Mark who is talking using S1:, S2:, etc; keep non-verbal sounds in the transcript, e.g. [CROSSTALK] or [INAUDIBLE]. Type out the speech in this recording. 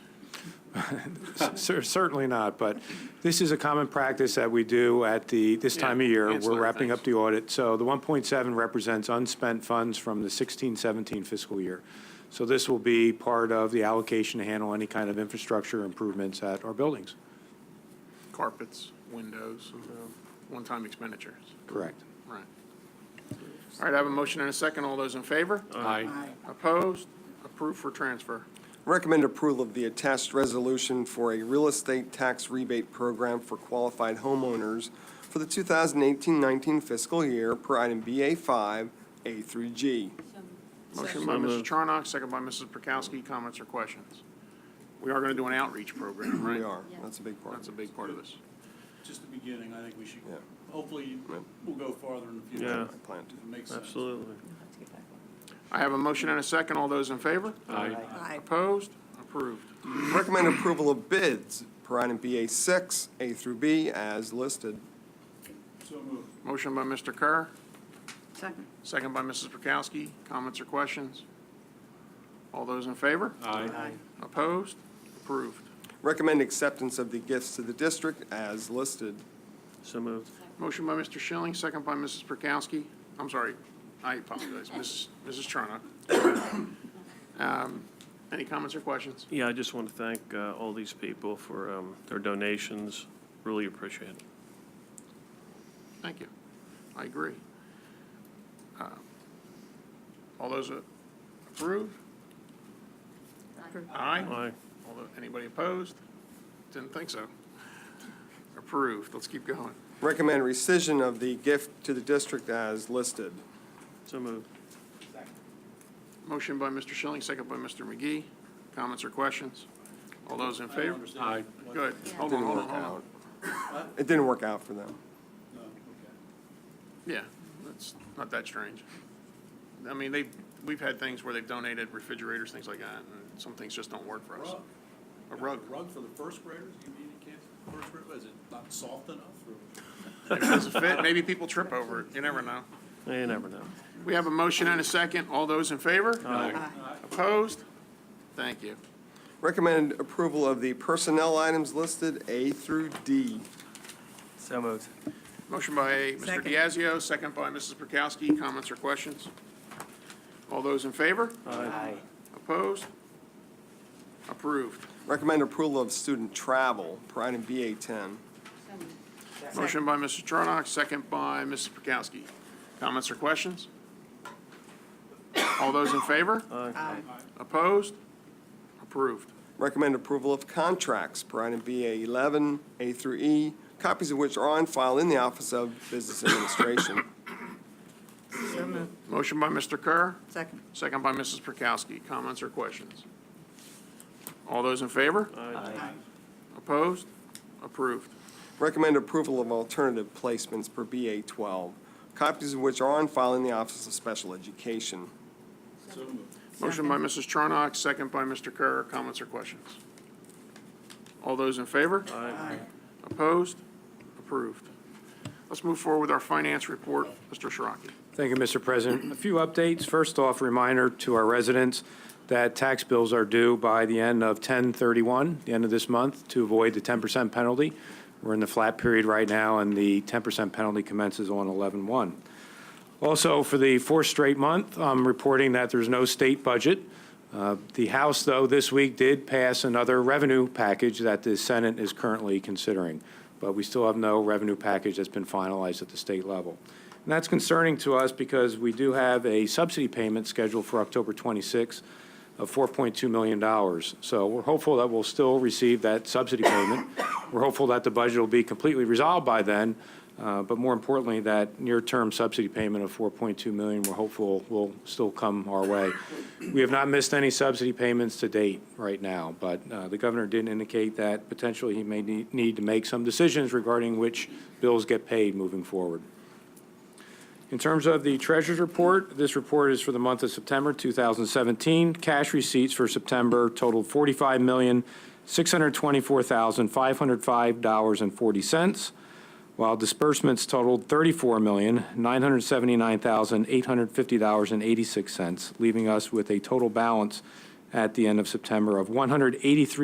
S1: [LAUGHS] Cer- Certainly not, but this is a common practice that we do at the, this
S2: Yeah,
S1: time of year. We're
S2: ancillary
S1: wrapping up the
S2: things.
S1: audit. So the 1.7 represents unspent funds from the 16, 17 fiscal year. So this will be part of the allocation to handle any kind of infrastructure improvements at our buildings.
S2: Carpets, windows, uh, one-time expenditures.
S1: Correct.
S2: Right. All right, I have a motion and a second. All those in favor?
S3: Aye.
S2: Opposed? Approved for transfer.
S4: Recommend approval of the attached resolution for a real estate tax rebate program for qualified homeowners for the 2018-19 fiscal year per item BA5, A through G.
S2: Motion by
S3: So
S2: Mrs.
S3: moved.
S2: Charnock, second by Mrs. Prokowski. Comments or questions? We are going to do an outreach
S3: [CLEARS THROAT]
S2: program, right?
S4: We are, that's a big part.
S2: That's a big part of this.
S5: just the beginning, I think we should,
S4: Yeah.
S5: hopefully, we'll go farther in the
S3: Yeah.
S5: future.
S4: I plan to.
S5: If it makes sense.
S3: Absolutely.
S2: I have a motion and a second. All those in favor?
S3: Aye.
S6: Aye.
S2: Opposed? Approved.
S4: Recommend approval of bids per item BA6, A through B as listed.
S5: So moved.
S2: Motion by Mr. Kerr,
S6: Second.
S2: second by Mrs. Prokowski. Comments or questions? All those in favor?
S6: Aye.
S2: Opposed? Approved.
S4: Recommend acceptance of the gifts to the district as listed.
S3: So moved.
S2: Motion by Mr. Schilling, second by Mrs. Prokowski. I'm sorry, I apologize, Mrs. Mrs. Charnock. Um, Any comments or questions?
S3: Yeah, I just want to thank uh, all these people for um, their donations. Really appreciate it.
S2: Thank you. I agree. Uh, All those uh, approve? Aye.
S3: Aye.
S2: Although, anybody opposed? Didn't think so. Approved. Let's keep going.
S4: Recommend rescission of the gift to the district as listed.
S3: So moved.
S2: Motion by Mr. Schilling, second by Mr. McGee. Comments or questions? All those in favor?
S5: Aye.
S2: Good. Hold on,
S4: Didn't
S2: hold on,
S4: work
S2: hold on.
S4: out. It didn't work out for them.
S5: No, okay.
S2: Yeah, that's not that strange. I mean, they, we've had things where they've donated refrigerators, things like that, and some things just don't work for us.
S5: Rug.
S2: A rug.
S5: Rug for the first graders, you mean, you can't, first grade, is it not soft enough? or-
S2: If it doesn't fit, maybe people trip over it, you never know.
S3: You never know.
S2: We have a motion and a second. All those in favor? Opposed? Thank you.
S4: Recommend approval of the personnel items listed A through D.
S7: So moved.
S2: Motion by Mr.
S6: Second.
S2: Diazio, second by Mrs. Prokowski. Comments or questions? All those in favor?
S7: Aye.
S2: Opposed? Approved.
S4: Recommend approval of student travel per item BA ten.
S2: Motion by Mr. Charnock, second by Mrs. Prokowski. Comments or questions? All those in favor?
S6: Aye.
S2: Opposed? Approved.
S4: Recommend approval of contracts per item BA eleven, A through E, copies of which are on file in the Office of Business Administration. [COUGHS]
S6: So moved.
S2: Motion by Mr. Kerr,
S6: Second.
S2: second by Mrs. Prokowski. Comments or questions? All those in favor?
S7: Aye.
S2: Opposed? Approved.
S4: Recommend approval of alternative placements per BA twelve, copies of which are on file in the Office of Special Education.
S5: So moved.
S2: Motion by Mrs. Charnock, second by Mr. Kerr. Comments or questions? All those in favor?
S3: Aye.
S2: Opposed? Approved. Let's move forward with our finance report. Mr. Shiraki.
S1: Thank you, Mr. President. A few updates. First off, reminder to our residents that tax bills are due by the end of 10/31, the end of this month, to avoid the 10% penalty. We're in the flat period right now, and the 10% penalty commences on 11/1. Also, for the fourth straight month, I'm reporting that there's no state budget. Uh, The House, though, this week did pass another revenue package that the Senate is currently considering, but we still have no revenue package that's been finalized at the state level. And that's concerning to us because we do have a subsidy payment scheduled for October 26th of $4.2 million. So we're hopeful that we'll still receive that subsidy payment. We're hopeful that the budget will be completely resolved by then, uh, but more importantly, that near-term subsidy payment of 4.2 million, we're hopeful will still come our way. We have not missed any subsidy payments to date right now, but uh, the governor did indicate that potentially he may need need to make some decisions regarding which bills get paid moving forward. In terms of the treasurer's report, this report is for the month of September 2017. Cash receipts for September totaled $45,624,505.40, while disbursements totaled $34,979,850.86, leaving us with a total balance at the end of September of 183.